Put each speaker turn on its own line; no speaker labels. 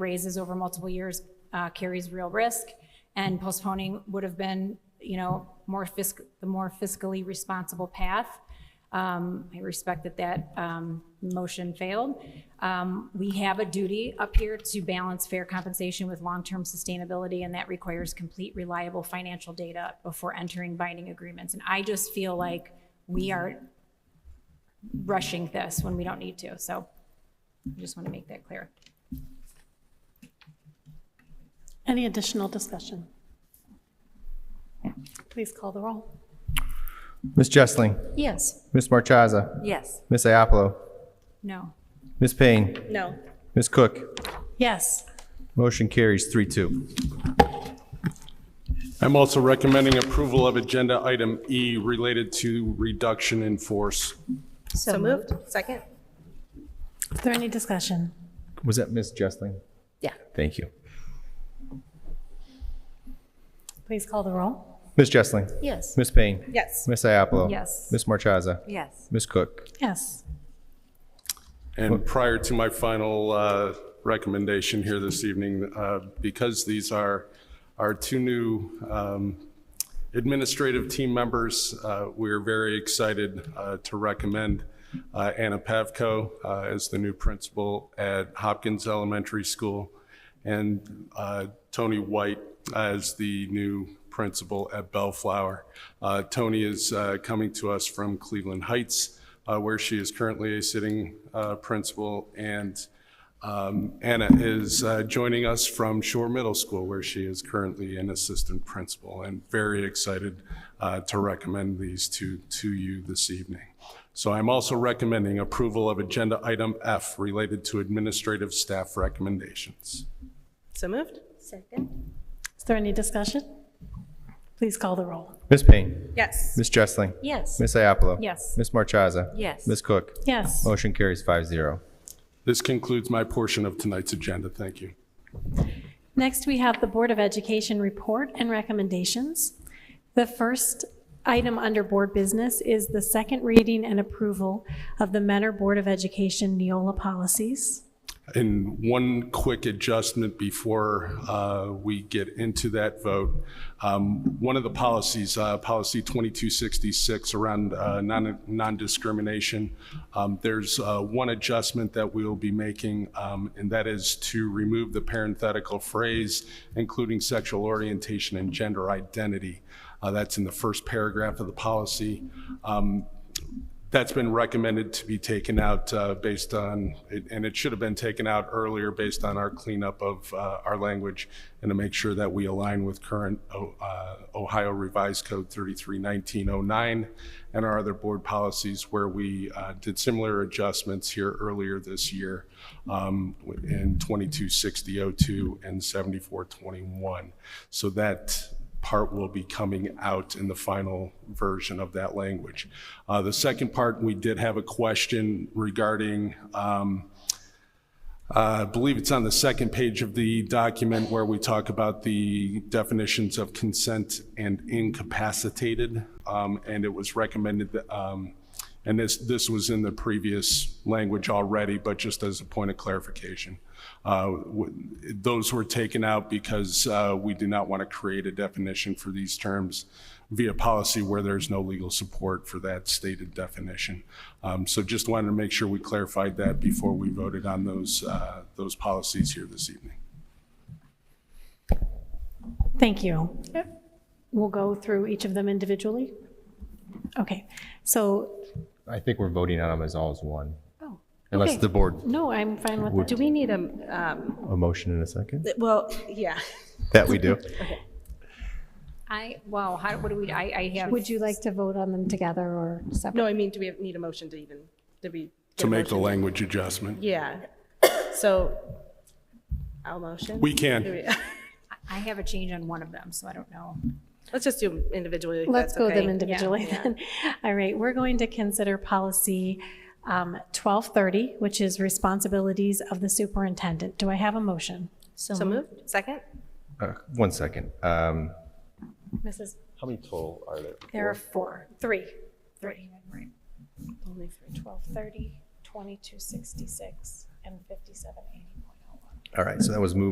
raises over multiple years uh, carries real risk, and postponing would have been, you know, more fisc, the more fiscally responsible path. Um, I respect that that um, motion failed. Um, We have a duty up here to balance fair compensation with long-term sustainability, and that requires complete reliable financial data before entering binding agreements. And I just feel like we are rushing this when we don't need to. So I just want to make that clear.
Any additional discussion? Please call the roll.
Miss Jessling,
Yes.
Miss Marchaza,
Yes.
Miss Iapolo,
No.
Miss Payne,
No.
Miss Cook.
Yes.
Motion carries three two.
I'm also recommending approval of Agenda Item E related to reduction in force.
So moved. Second?
Is there any discussion?
Was that Miss Jessling?
Yeah.
Thank you.
Please call the roll.
Miss Jessling,
Yes.
Miss Payne,
Yes.
Miss Iapolo.
Yes.
Miss Marchaza,
Yes.
Miss Cook.
Yes.
And prior to my final uh, recommendation here this evening, uh, because these are our two new um, administrative team members, uh, we're very excited uh, to recommend uh, Anna Pavko uh, as the new principal at Hopkins Elementary School and uh, Tony White as the new principal at Bellflower. Uh, Tony is uh, coming to us from Cleveland Heights, uh, where she is currently a sitting uh, principal, and um, Anna is uh, joining us from Shore Middle School, where she is currently an assistant principal, and very excited uh, to recommend these to, to you this evening. So I'm also recommending approval of Agenda Item F related to administrative staff recommendations.
So moved. Second?
Is there any discussion? Please call the roll.
Miss Payne,
Yes.
Miss Jessling,
Yes.
Miss Iapolo.
Yes.
Miss Marchaza.
Yes.
Miss Cook.
Yes.
Motion carries five zero.
This concludes my portion of tonight's agenda. Thank you.
Next, we have the Board of Education report and recommendations. The first item under Board Business is the second reading and approval of the Mentor Board of Education Neola policies.
And one quick adjustment before uh, we get into that vote. Um, One of the policies, uh, Policy 2266 around uh, non- non-discrimination, um, there's uh, one adjustment that we'll be making, um, and that is to remove the parenthetical phrase, including sexual orientation and gender identity. Uh, That's in the first paragraph of the policy. Um, that's been recommended to be taken out uh, based on, and it should have been taken out earlier based on our cleanup of uh, our language and to make sure that we align with current O- uh, Ohio Revised Code 331909 and our other board policies where we uh, did similar adjustments here earlier this year um, in 226002 and 7421. So that part will be coming out in the final version of that language. Uh, The second part, we did have a question regarding, um, uh, I believe it's on the second page of the document where we talk about the definitions of consent and incapacitated. Um, And it was recommended, that, um, and this, this was in the previous language already, but just as a point of clarification. Uh, w- Those were taken out because uh, we do not want to create a definition for these terms via policy where there's no legal support for that stated definition. Um, So just wanted to make sure we clarified that before we voted on those, uh, those policies here this evening.
Thank you. We'll go through each of them individually. Okay, so,
I think we're voting on them as all as one.
Oh,
Unless
okay.
the board,
no, I'm fine with
Do
that.
we need a, um,
a motion in a second?
well, yeah.
That we do.
I, wow, how, what do we, I, I have,
Would you like to vote on them together or separate?
No, I mean, do we have- need a motion to even, did we?
To make the language adjustment.
Yeah. So I'll motion.
We can.
I have a change on one of them, so I don't know.
Let's just do them individually. if
Let's
that's
go with them
okay.
individually then. All right, we're going to consider policy um, 1230, which is responsibilities of the superintendent. Do I have a motion?
So moved. Second?
Uh, One second. Um,
Mrs.
How many total are there?
There are four, three, three.
Right.
Only three.
1230, 2266, and 5780.01.
All right, so that was moved